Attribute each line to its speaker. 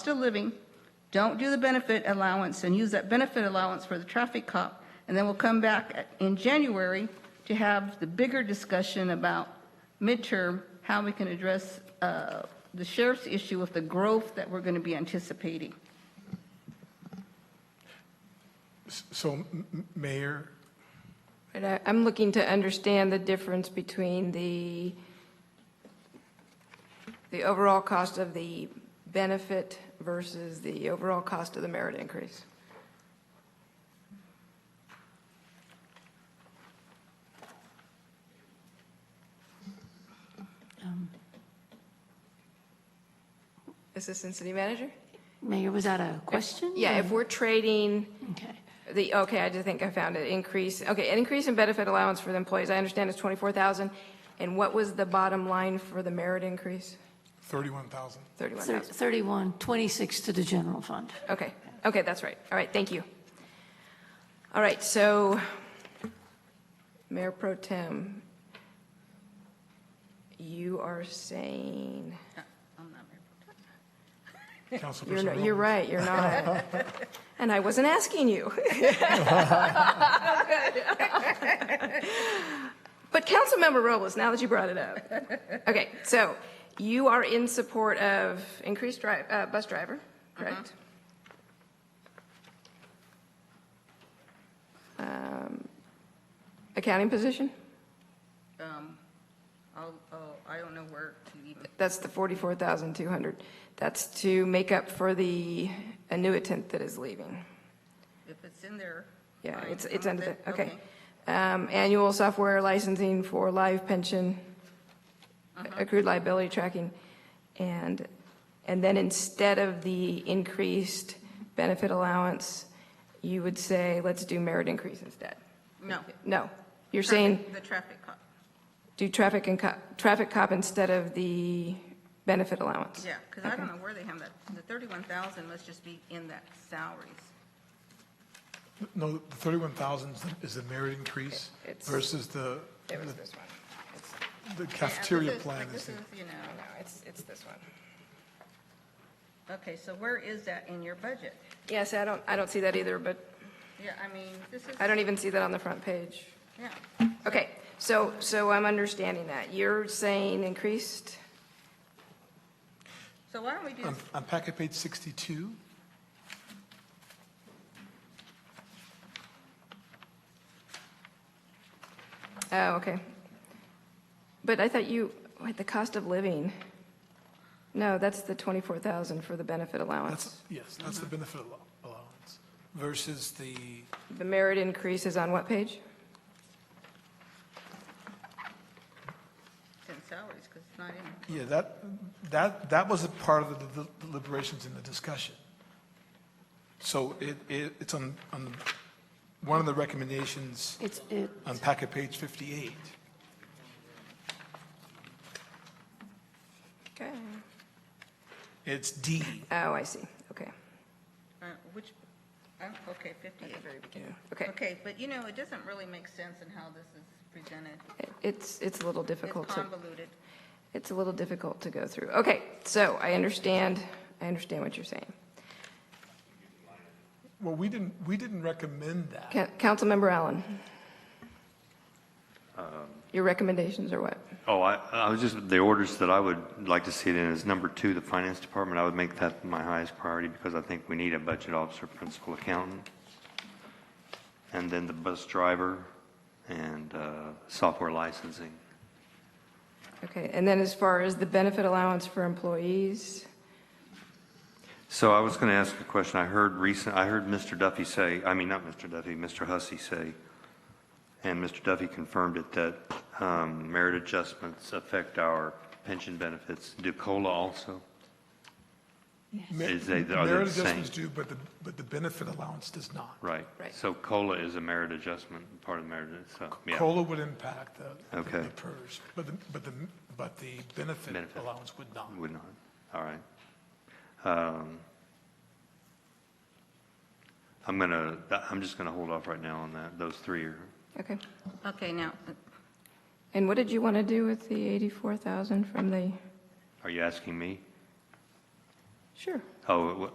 Speaker 1: still living, don't do the benefit allowance and use that benefit allowance for the traffic cop. And then we'll come back at- in January to have the bigger discussion about midterm, how we can address uh, the sheriff's issue with the growth that we're going to be anticipating.
Speaker 2: So, M- M- Mayor,
Speaker 3: But I- I'm looking to understand the difference between the, the overall cost of the benefit versus the overall cost of the merit increase. Assistant City Manager?
Speaker 4: Mayor, was that a question?
Speaker 3: Yeah, if we're trading.
Speaker 4: Okay.
Speaker 3: The, okay, I just think I found it, increase, okay, an increase in benefit allowance for the employees, I understand it's 24,000. And what was the bottom line for the merit increase?
Speaker 2: 31,000.
Speaker 3: 31,000,
Speaker 4: 31, 26 to the general fund.
Speaker 3: okay, okay, that's right, all right, thank you. All right, so, Mayor Pro Tem, you are saying, you're,
Speaker 2: Councilperson
Speaker 3: not- you're
Speaker 2: Rowland.
Speaker 3: right, you're not. And I wasn't asking you. But Councilmember Robles, now that you brought it up. Okay, so you are in support of increased dri, uh, bus driver, correct? Um, Accounting position?
Speaker 1: Um, I'll- Oh, I don't know where to even,
Speaker 3: That's the forty-four thousand two hundred. That's to make up for the annuitant that is leaving.
Speaker 1: if it's in there.
Speaker 3: Yeah,
Speaker 1: fine.
Speaker 3: it's, it's
Speaker 1: I'm
Speaker 3: under
Speaker 1: with
Speaker 3: the,
Speaker 1: it.
Speaker 3: okay. Um, Annual software licensing for live pension,
Speaker 1: Uh-huh.
Speaker 3: accrued liability tracking. And, and then instead of the increased benefit allowance, you would say, let's do merit increase instead.
Speaker 1: No.
Speaker 3: No, you're saying
Speaker 1: Traffic- The traffic cop,
Speaker 3: do traffic and cop, traffic cop instead of the benefit allowance.
Speaker 1: yeah, because I don't know where they have that. The 31,000 must just be in that salaries.
Speaker 2: No, the 31,000 is the- is the merit increase
Speaker 3: It's-
Speaker 2: versus the,
Speaker 3: It was
Speaker 2: the-
Speaker 3: this one. It's-
Speaker 2: the
Speaker 1: Yeah, this
Speaker 2: cafeteria
Speaker 1: is-
Speaker 2: plan
Speaker 1: but
Speaker 2: is,
Speaker 1: This is, you know.
Speaker 3: No, it's, it's this one.
Speaker 1: Okay, so where is that in your budget?
Speaker 3: Yes, I don't, I don't see that either, but
Speaker 1: Yeah, I mean, this is,
Speaker 3: I don't e- even see that on the front page.
Speaker 1: yeah.
Speaker 3: Okay, so, so I'm understanding that. You're saying increased,
Speaker 1: So why don't we do,
Speaker 3: Um.
Speaker 2: on, on packet page 62,
Speaker 3: oh, okay. But I thought you, wait, the cost of living. No, that's the 24,000 for the benefit
Speaker 2: that's,
Speaker 3: allowance.
Speaker 2: yes, that's
Speaker 3: Mm-hmm.
Speaker 2: the benefit allo- allowance versus the,
Speaker 3: The merit increase is on what page?
Speaker 1: it's in salaries, because it's not in,
Speaker 2: yeah, that, that, that was a part of the del- deliberations in the discussion. So it, it, it's on, on one of the recommendations
Speaker 4: It's, it,
Speaker 2: on packet page 58.
Speaker 3: Okay.
Speaker 2: It's D.
Speaker 3: Oh, I see, okay.
Speaker 1: uh, which, I'm- okay, 58.
Speaker 3: Okay,
Speaker 1: Okay, but you know, it doesn't really make sense in how this is presented.
Speaker 3: it's, it's a little
Speaker 1: It's
Speaker 3: difficult to,
Speaker 1: convoluted.
Speaker 3: it's a little difficult to go through. Okay, so I understand, I understand what you're saying.
Speaker 2: Well, we didn't, we didn't recommend that.
Speaker 3: Ca- Councilmember Allen? Your recommendations are what?
Speaker 5: Oh, I, I was just, the orders that I would like to see it in is number two, the finance department. I would make that my highest priority because I think we need a budget officer, principal accountant. And then the bus driver and, uh, software licensing.
Speaker 3: Okay, and then as far as the benefit allowance for employees,
Speaker 5: So I was going to ask a question. I heard recent, I heard Mr. Duffy say, I mean, not Mr. Duffy, Mr. Hussey say, and Mr. Duffy confirmed it, that um, merit adjustments affect our pension benefits. Do COLA also?
Speaker 2: Ma-
Speaker 5: Is they- are they
Speaker 2: Merit
Speaker 5: the same?
Speaker 2: adjustments do, but the, but the benefit allowance does not.
Speaker 5: Right.
Speaker 3: Right.
Speaker 5: So COLA is a merit adjustment, part of the merit, so, yeah.
Speaker 2: COLA would impact the,
Speaker 5: Okay.
Speaker 2: the PERS, but the, but the, but the benefit
Speaker 5: Benefit.
Speaker 2: allowance would not.
Speaker 5: Would not, all right. Um, I'm gonna, I'm just gonna hold off right now on that, those three are,
Speaker 3: okay.
Speaker 1: Okay, now, uh,
Speaker 3: And what did you want to do with the 84,000 from the,
Speaker 5: are you asking me?
Speaker 3: Sure.
Speaker 5: Oh, it wa-